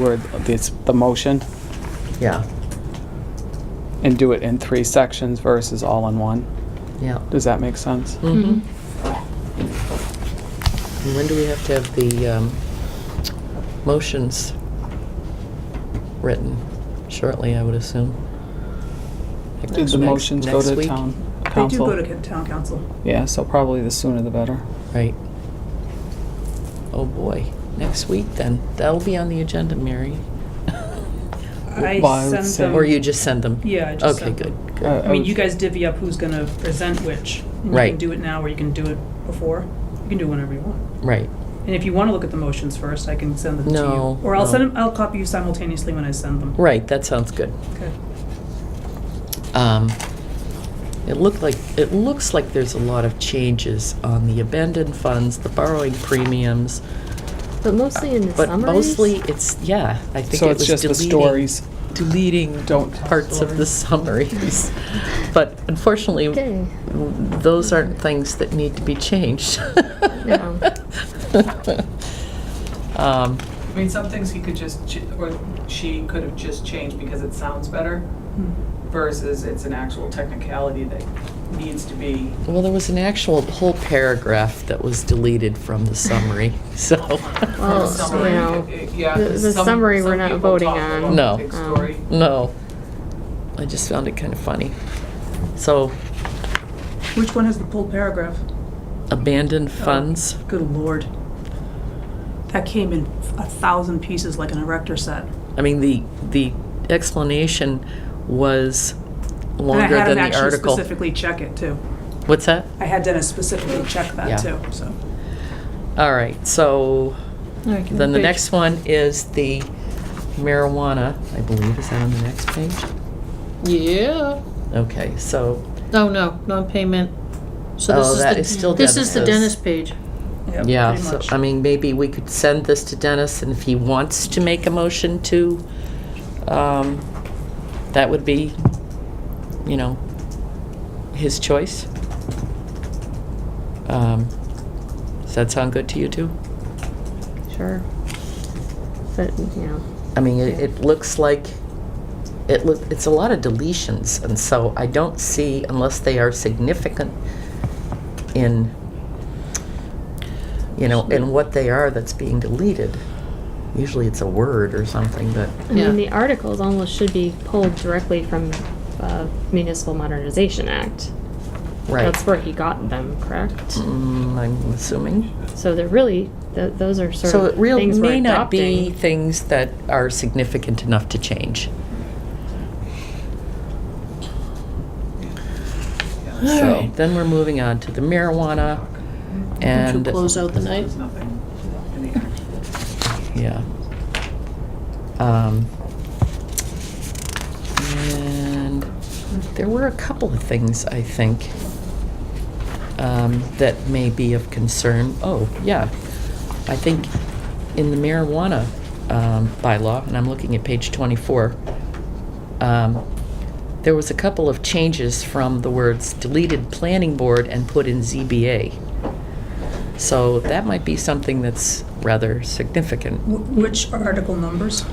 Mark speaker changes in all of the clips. Speaker 1: where it's the motion
Speaker 2: Yeah,
Speaker 1: and do it in three sections versus all in one.
Speaker 2: yeah.
Speaker 1: Does that make sense?
Speaker 2: And When do we have to have the um, motions written? Shortly, I would assume. Like
Speaker 1: Did
Speaker 2: next-
Speaker 1: the motions go
Speaker 2: next
Speaker 1: to
Speaker 2: week?
Speaker 1: town
Speaker 3: They do
Speaker 1: council?
Speaker 3: go to ca- town council.
Speaker 1: Yeah, so probably the sooner the better.
Speaker 2: Right. Oh, boy. Next week, then. That'll be on the agenda, Mary.
Speaker 3: I
Speaker 1: Well, I would
Speaker 3: send
Speaker 1: say-
Speaker 3: them.
Speaker 2: Or you just send them?
Speaker 3: Yeah, I just send
Speaker 2: Okay,
Speaker 3: them.
Speaker 2: good,
Speaker 1: Uh,
Speaker 2: good.
Speaker 3: I mean,
Speaker 1: would-
Speaker 3: you guys divvy up who's gonna present which. And You
Speaker 2: Right.
Speaker 3: can do it now, or you can do it before. You can do it whenever you want.
Speaker 2: Right.
Speaker 3: And if you wanna look at the motions first, I can send them to you.
Speaker 2: No,
Speaker 3: Or I'll
Speaker 2: no.
Speaker 3: send them, I'll copy you simultaneously when I send them.
Speaker 2: Right, that sounds good.
Speaker 3: Okay.
Speaker 2: Um, It looked like, it looks like there's a lot of changes on the abandoned funds, the borrowing premiums,
Speaker 4: But mostly in the
Speaker 2: but
Speaker 4: summaries.
Speaker 2: mostly it's, yeah, I think it
Speaker 1: So
Speaker 2: was
Speaker 1: it's just the
Speaker 2: deleting.
Speaker 1: stories.
Speaker 2: Deleting
Speaker 1: Don't tell
Speaker 2: parts of the summaries. But unfortunately,
Speaker 4: Okay.
Speaker 2: those aren't things that need to be changed.
Speaker 4: No.
Speaker 2: Um,
Speaker 5: I mean, some things he could just, ch- or she could have just changed because it sounds better versus it's an actual technicality that needs to be.
Speaker 2: Well, there was an actual whole paragraph that was deleted from the summary, so.
Speaker 4: Well,
Speaker 5: summary,
Speaker 4: you know,
Speaker 5: it- yeah,
Speaker 4: the- the
Speaker 5: some-
Speaker 4: summary
Speaker 5: some
Speaker 4: we're not
Speaker 5: people
Speaker 4: voting
Speaker 5: talk
Speaker 4: on.
Speaker 5: about
Speaker 2: No.
Speaker 5: the Big
Speaker 4: Um,
Speaker 5: story.
Speaker 2: No. I just found it kind of funny. So
Speaker 3: Which one has the pulled paragraph?
Speaker 2: abandoned funds,
Speaker 3: Good lord. That came in a thousand pieces like an erector set.
Speaker 2: I mean, the, the explanation was longer than
Speaker 3: And I had
Speaker 2: the
Speaker 3: him actually
Speaker 2: article.
Speaker 3: specifically check it too.
Speaker 2: What's that?
Speaker 3: I had Dennis specifically check that
Speaker 2: Yeah.
Speaker 3: too, so.
Speaker 2: All right, so then the
Speaker 4: page.
Speaker 2: next one is the marijuana, I believe, is that on the next page?
Speaker 6: Yeah.
Speaker 2: Okay, so,
Speaker 6: Oh, no, non-payment. So this
Speaker 2: Oh,
Speaker 6: is
Speaker 2: that
Speaker 6: the-
Speaker 2: is still
Speaker 6: This is the
Speaker 2: Dennis's.
Speaker 6: dentist page.
Speaker 3: Yep,
Speaker 2: yeah,
Speaker 3: pretty
Speaker 2: so,
Speaker 3: much.
Speaker 2: I mean, maybe we could send this to Dennis and if he wants to make a motion to, um, that would be, you know, his choice. Um, Does that sound good to you two?
Speaker 4: Sure. But, you know,
Speaker 2: I mean, it, it looks like, it look, it's a lot of deletions, and so I don't see, unless they are significant in, you know, in what they are that's being deleted. Usually it's a word or something, but,
Speaker 4: I
Speaker 6: Yeah.
Speaker 4: mean, the articles almost should be pulled directly from uh, Municipal Modernization Act.
Speaker 2: right.
Speaker 4: That's where he got them, correct?
Speaker 2: Mm, I'm assuming.
Speaker 4: So they're really, th- those are sort
Speaker 2: So
Speaker 4: of
Speaker 2: it really
Speaker 4: things we're
Speaker 2: may not be
Speaker 4: adopting.
Speaker 2: things that are significant enough to change. So
Speaker 6: Alright.
Speaker 2: then we're moving on to the marijuana
Speaker 6: Did you
Speaker 2: and.
Speaker 6: close out the night?
Speaker 5: There's nothing in the actual.
Speaker 2: Yeah. Um, And there were a couple of things, I think, um, that may be of concern. Oh, yeah. I think in the marijuana um, bylaw, and I'm looking at page 24, um, there was a couple of changes from the words deleted planning board and put in ZBA. So that might be something that's rather significant.
Speaker 3: Wh- Which article numbers?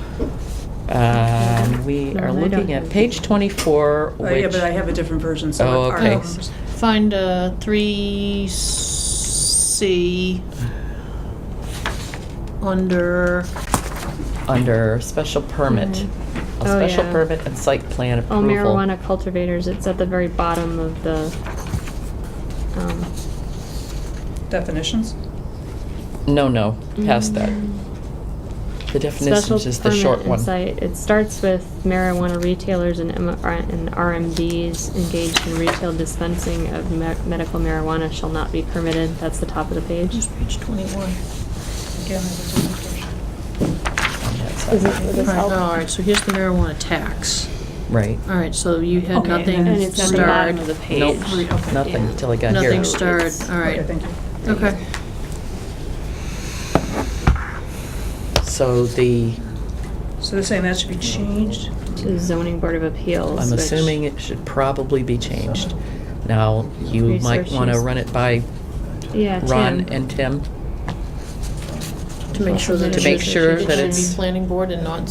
Speaker 2: Um, we
Speaker 4: No, I
Speaker 2: are
Speaker 4: don't
Speaker 2: looking at
Speaker 4: think-
Speaker 2: page 24,
Speaker 3: Oh, yeah,
Speaker 2: which,
Speaker 3: but I have a different version, so.
Speaker 2: Oh,
Speaker 3: our um,
Speaker 2: okay.
Speaker 3: numbers.
Speaker 6: Find uh, 3C under,
Speaker 2: under special permit. A
Speaker 4: Oh,
Speaker 2: special
Speaker 4: yeah.
Speaker 2: permit and site plan
Speaker 4: All
Speaker 2: approval.
Speaker 4: marijuana cultivators, it's at the very bottom of the, um,
Speaker 3: Definitions?
Speaker 2: No, no, past that. The definition
Speaker 4: Mm. Special
Speaker 2: is just the short one.
Speaker 4: permit and site, it starts with marijuana retailers and M- R- and RMDs engaged in retail dispensing of me- medical marijuana shall not be permitted, that's the top of the page.
Speaker 6: just page 21.
Speaker 3: Again, I
Speaker 2: on that side.
Speaker 3: have a different version.
Speaker 4: Is it- would
Speaker 6: All
Speaker 4: this
Speaker 6: right,
Speaker 4: help?
Speaker 6: all right, so here's the marijuana tax.
Speaker 2: Right,
Speaker 6: All right, so you had
Speaker 3: Okay, and then
Speaker 4: And
Speaker 6: nothing
Speaker 4: it's at the bottom
Speaker 6: starred.
Speaker 4: of the page.
Speaker 2: Nope.
Speaker 3: Okay.
Speaker 2: nothing
Speaker 4: Yeah.
Speaker 2: till I got here.
Speaker 6: Nothing starred,
Speaker 4: It's-
Speaker 6: all
Speaker 3: Okay,
Speaker 6: right.
Speaker 3: thank you.
Speaker 6: Okay.
Speaker 2: So the,
Speaker 3: So they're saying that should be changed?
Speaker 4: To the zoning board of appeals.
Speaker 2: I'm
Speaker 4: which-
Speaker 2: assuming it should probably be changed. Now, you might
Speaker 4: Research
Speaker 2: want to
Speaker 4: use-
Speaker 2: run it by
Speaker 4: Yeah,
Speaker 2: Ron
Speaker 4: Tim.
Speaker 2: and Tim.
Speaker 6: to make sure that
Speaker 2: To
Speaker 6: it
Speaker 2: make
Speaker 6: should-
Speaker 2: sure
Speaker 6: it
Speaker 2: that
Speaker 6: should be
Speaker 2: it's-
Speaker 6: planning board and not